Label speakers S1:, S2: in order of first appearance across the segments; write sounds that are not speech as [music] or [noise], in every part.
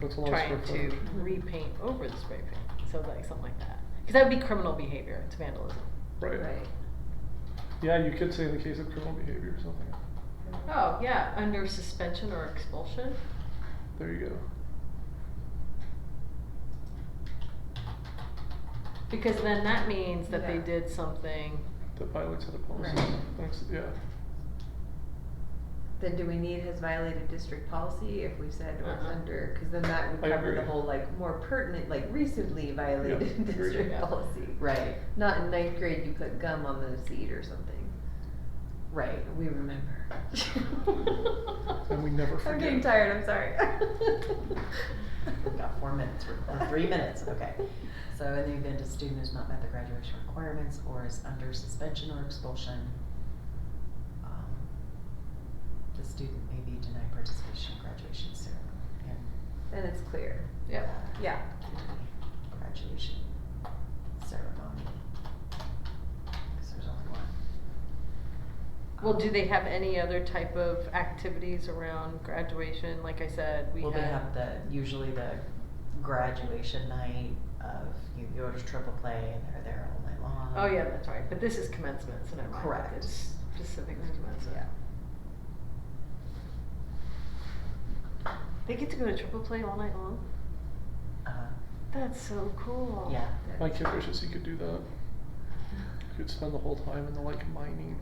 S1: That's a lot of
S2: trying
S1: square
S2: to
S1: footage.
S2: repaint over the spray paint, so like something like that. Because that would be criminal behavior, it's vandalism.
S1: Right. Yeah, you could say in the case of criminal behavior or something.
S2: Oh, yeah, under suspension or expulsion.
S1: There you go.
S2: Because then that means that they
S3: Yeah.
S2: did something.
S1: That violates other policies.
S3: Right.
S1: Thanks, yeah.
S3: Then do we need has violated district policy if we said or it's
S2: Uh-uh.
S3: under, cause then that would
S1: Uh-huh. I
S3: cover the
S1: agree.
S3: whole like more pertinent, like recently violated
S1: agreed.
S3: [laughs] district
S2: Yeah.
S3: policy. Right, not in ninth grade you put gum on the seat or something. Right, we [laughs] remember.
S1: And we never
S3: I'm getting
S1: forget.
S3: tired, I'm sorry.
S4: [laughs] We've got four minutes, or or three minutes,
S3: [laughs]
S4: okay. So in the event a student has not met the graduation requirements or is under suspension or expulsion, um, the student may be denied participation in graduation ceremony and.
S3: Then it's
S4: [laughs]
S3: clear, [laughs]
S2: Yep.
S4: uh,
S3: yeah.
S4: Graduation ceremony. Cause there's only one.
S2: Well,
S4: Um,
S2: do they have any other type of activities around graduation? Like I said, we
S4: Well, they
S2: had.
S4: have um, the, usually the graduation night of, you go to triple play and they're there all night long.
S2: Oh, yeah, that's right, but this is commencement, so never mind.
S4: Correct.
S2: It's specific to commencement.
S4: Yeah.
S2: They get to go to triple play all night long?
S4: Uh,
S2: That's so cool.
S4: yeah.
S1: My kid wishes he could do that. He could spend the whole time in the like mining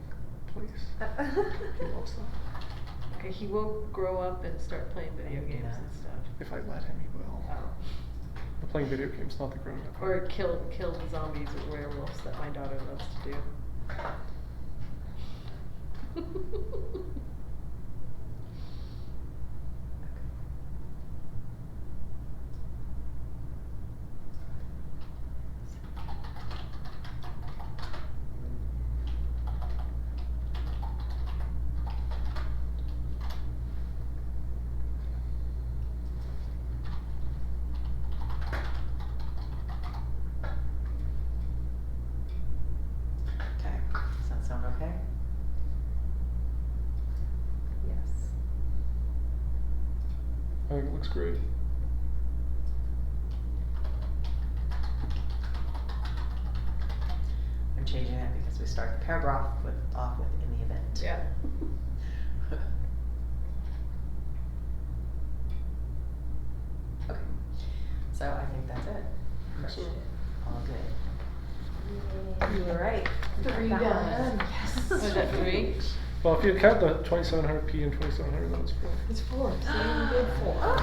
S1: place.
S2: Uh,
S1: He loves that.
S2: Okay, he will grow up and start playing video
S4: Yeah.
S2: games and stuff.
S1: If I let him, he will.
S2: Oh.
S1: But playing video games, not the grown up.
S2: Or kill kill the zombies or werewolves that my daughter loves to do.
S4: Okay, does that sound okay?
S3: Yes.
S1: I think it looks great.
S4: I'm changing it because we start the paragraph with, off with in the event.
S2: [laughs] yeah.
S4: [laughs]
S2: [laughs]
S4: Okay, so I think that's it.
S1: So,
S4: All
S2: [gasps]
S4: good.
S3: You were right.
S4: Three
S3: Got
S4: done.
S3: one. Yes.
S2: Was
S3: [laughs]
S2: that three?
S1: well, if you count the 2700p and 2700, that was four.
S4: It's four, Ah.
S2: I was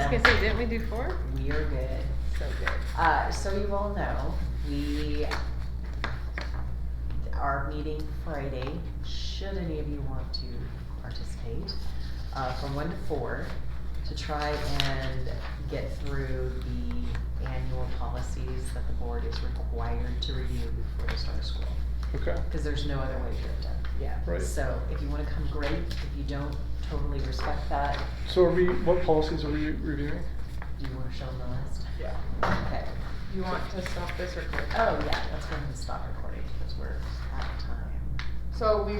S4: Awesome,
S2: gonna say, didn't we do four?
S4: we are good.
S2: So good.
S4: Uh, so you all know, we, our meeting Friday, should any of you want to participate, uh, from one to four, to try and get through the annual policies that the board is required to review before the start of school.
S1: Okay.
S4: Cause there's no other way to do it done.
S3: Yeah.
S1: Right.
S4: So if you wanna come, great. If you don't, totally respect that.
S1: So, are we, what policies are we reviewing?
S4: Do you wanna show them the list?
S3: Yeah.
S4: Okay.
S3: You want to stop this recording?
S4: Oh, yeah, that's when we stop recording, because we're out of time.
S3: So we